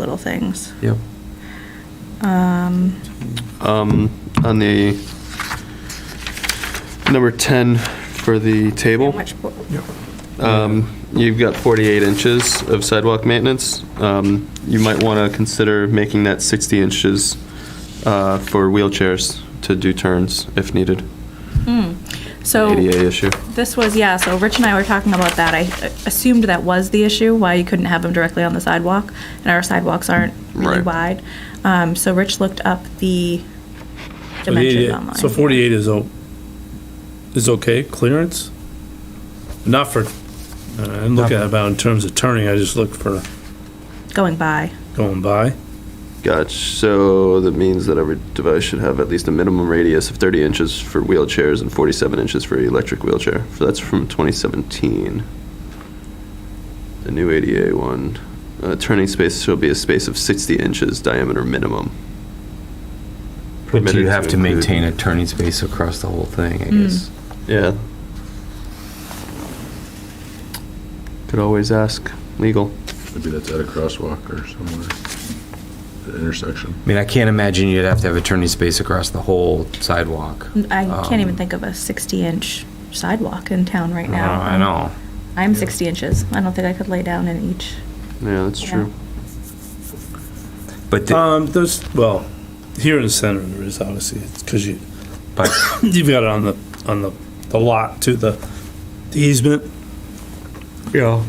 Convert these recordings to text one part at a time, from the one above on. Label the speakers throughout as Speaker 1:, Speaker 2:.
Speaker 1: little things.
Speaker 2: Yep.
Speaker 1: Um,
Speaker 2: Um, On the number 10 for the
Speaker 1: how
Speaker 2: table,
Speaker 1: much bo-
Speaker 2: um, you've got 48 inches of sidewalk maintenance. Um, You might want to consider making that 60 inches uh, for wheelchairs to do turns if needed.
Speaker 1: Hmm. So
Speaker 2: ADA issue.
Speaker 1: this was, yeah, so Rich and I were talking about that. I uh, assumed that was the issue, why you couldn't have them directly on the sidewalk, and our sidewalks aren't really
Speaker 2: Right.
Speaker 1: wide. Um, So Rich looked up the
Speaker 3: So the
Speaker 1: dimensions
Speaker 3: 88
Speaker 1: online.
Speaker 3: So 48 is, o- is okay clearance? Not for, I didn't look at it about in terms of turning, I just looked for
Speaker 1: Going by.
Speaker 3: going by.
Speaker 2: Gotcha. So that means that every device should have at least a minimum radius of 30 inches for wheelchairs and 47 inches for electric wheelchair. So that's from 2017. The new ADA one. Uh, turning space shall be a space of 60 inches diameter minimum.
Speaker 4: But do
Speaker 2: Permitted
Speaker 4: you have to
Speaker 2: include-
Speaker 4: maintain a turning space across the whole thing, I guess?
Speaker 2: Yeah. Could always ask legal.
Speaker 5: Maybe that's at a crosswalk or somewhere, the intersection.
Speaker 4: I mean, I can't imagine you'd have to have a turning space across the whole sidewalk.
Speaker 1: I can't even
Speaker 4: Um,
Speaker 1: think of a 60-inch sidewalk in town right
Speaker 4: No,
Speaker 1: now.
Speaker 4: I know.
Speaker 1: I'm 60 inches. I don't think I could lay down in each.
Speaker 2: Yeah, that's
Speaker 1: Yeah.
Speaker 2: true.
Speaker 4: But, the-
Speaker 3: Um, there's, well, here in the center there is obviously, it's because you,
Speaker 4: but,
Speaker 3: you've got it on the, on the, the lot to the the easement. Yeah.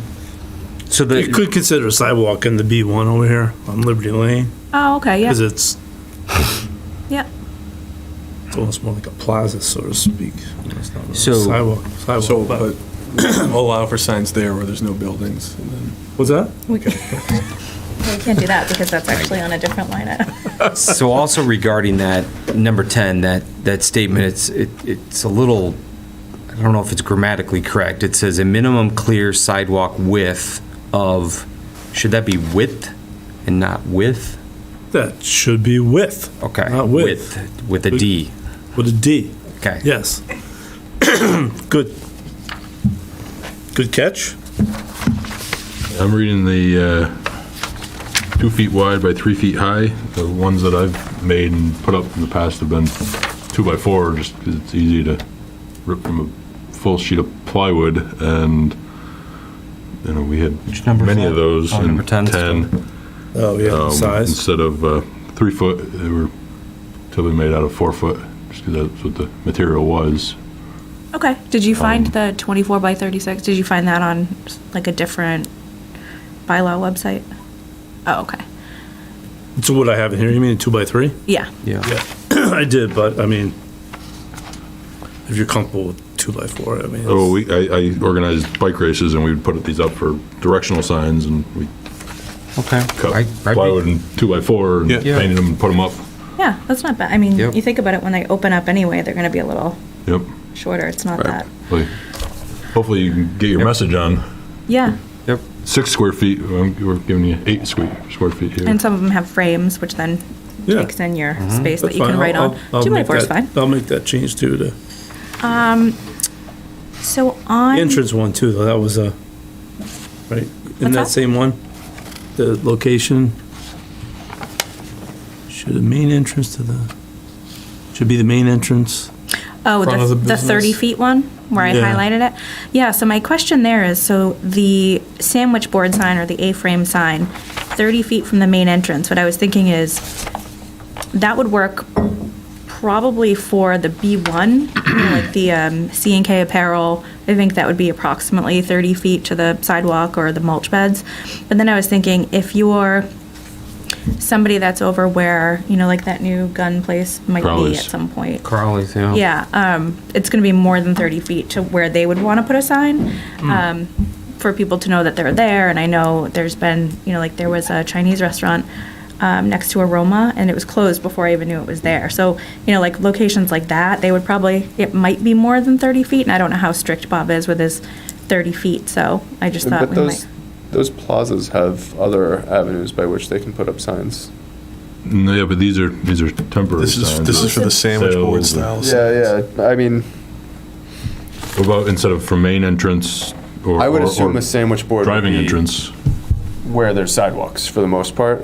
Speaker 4: so
Speaker 3: You
Speaker 4: the,
Speaker 3: could consider a sidewalk in the B1 over here on Liberty Lane,
Speaker 1: Oh, okay, yeah,
Speaker 3: because it's,
Speaker 1: yeah.
Speaker 3: it's almost more like a plaza, so to speak. You know, It's not really a
Speaker 4: So-
Speaker 3: sidewalk,
Speaker 6: So,
Speaker 3: sidewalk, but,
Speaker 6: but allow for signs there where there's no buildings, and then
Speaker 3: what's that?
Speaker 1: We we can't do that because that's actually on a different line item.
Speaker 4: so also regarding that, number 10, that, that statement, it's, it it's a little, I don't know if it's grammatically correct. It says a minimum clear sidewalk width of, should that be width and not width?
Speaker 3: That should be width.
Speaker 4: Okay.
Speaker 3: Not width,
Speaker 4: With- With a D,
Speaker 3: with a D.
Speaker 4: okay.
Speaker 3: Yes. Good. Good catch.
Speaker 5: I'm reading the uh, two feet wide by three feet high. The ones that I've made and put up in the past have been two by four, just 'cause it's easy to rip from a full sheet of plywood, and, you know, we had
Speaker 4: Which number is
Speaker 5: many of
Speaker 4: that?
Speaker 5: those
Speaker 4: Oh, number
Speaker 5: in
Speaker 4: 10.
Speaker 5: 10.
Speaker 3: Oh, yeah,
Speaker 5: um,
Speaker 3: size.
Speaker 5: Instead of uh, three foot, they were totally made out of four foot, just 'cause that's what the material was.
Speaker 1: Okay, did you find
Speaker 3: Um,
Speaker 1: the 24 by 36? Did you find that on like a different bylaw website? Oh, okay.
Speaker 3: So what I have in here, you mean two by three?
Speaker 1: Yeah,
Speaker 4: Yeah.
Speaker 3: I did, but I mean, if you're comfortable with two by four, I mean.
Speaker 5: Oh, we, I, I organized bike races and we would put these up for directional signs and we
Speaker 4: Okay.
Speaker 5: cut
Speaker 4: I- I'd be-
Speaker 5: plywood and two by four and
Speaker 6: Yeah.
Speaker 4: Yeah.
Speaker 5: painted them and put them up.
Speaker 1: yeah, that's not bad. I mean,
Speaker 4: Yep.
Speaker 1: you think about it, when they open up anyway, they're gonna be a little
Speaker 5: Yep.
Speaker 1: shorter. It's not that.
Speaker 5: Hopefully- Hopefully you can get your message on.
Speaker 1: Yeah,
Speaker 4: Yep.
Speaker 5: Six square feet, um, we're giving you eight square, square feet here.
Speaker 1: and some of them have frames, which then
Speaker 3: Yeah, Mm-hmm.
Speaker 1: takes in your space that
Speaker 3: that's
Speaker 1: you can
Speaker 3: fine.
Speaker 1: write
Speaker 3: I'll-
Speaker 1: on.
Speaker 3: I'll- I'll
Speaker 1: Two by
Speaker 3: make
Speaker 1: four is
Speaker 3: that-
Speaker 1: fine.
Speaker 3: I'll make that change too, the
Speaker 1: So on.
Speaker 3: entrance one too, though, that was a, right? In
Speaker 1: What's
Speaker 3: that
Speaker 1: that?
Speaker 3: same one, the location. Should the main entrance to the, should be the main entrance.
Speaker 1: Oh,
Speaker 3: front of
Speaker 1: the,
Speaker 3: the
Speaker 1: the
Speaker 3: business.
Speaker 1: 30 feet one where I
Speaker 3: Yeah.
Speaker 1: highlighted it? Yeah, so my question there is, so the sandwich board sign or the A-frame sign, 30 feet from the main entrance, what I was thinking is, that would work probably for the B1, you know, like the um, C and K apparel. I think that would be approximately 30 feet to the sidewalk or the mulch beds. But then I was thinking, if you're somebody that's over where, you know, like that new gun place might be at
Speaker 5: Crowley's.
Speaker 1: some point.
Speaker 4: Carly's, yeah.
Speaker 1: Yeah, um, it's gonna be more than thirty feet to where they would wanna put a sign, um, for people to know that they're there, and I know there's been, you know, like, there was a Chinese restaurant, um, next to Aroma, and it was closed before I even knew it was there, so, you know, like, locations like that, they would probably, it might be more than thirty feet, and I don't know how strict Bob is with his thirty feet, so I just thought
Speaker 7: But
Speaker 1: we might.
Speaker 7: those, those plazas have other avenues by which they can put up signs.
Speaker 5: No, Mm, Yeah, but these are, these are temporary
Speaker 6: this is,
Speaker 5: signs.
Speaker 6: this is for the sandwich board
Speaker 5: So-
Speaker 6: style.
Speaker 7: Yeah, yeah, I mean,
Speaker 5: What About instead of from main entrance or.
Speaker 7: I would
Speaker 5: or-
Speaker 7: assume
Speaker 5: or
Speaker 7: a sandwich board would
Speaker 5: Driving
Speaker 7: be
Speaker 5: entrance.
Speaker 7: where there's sidewalks for the most part.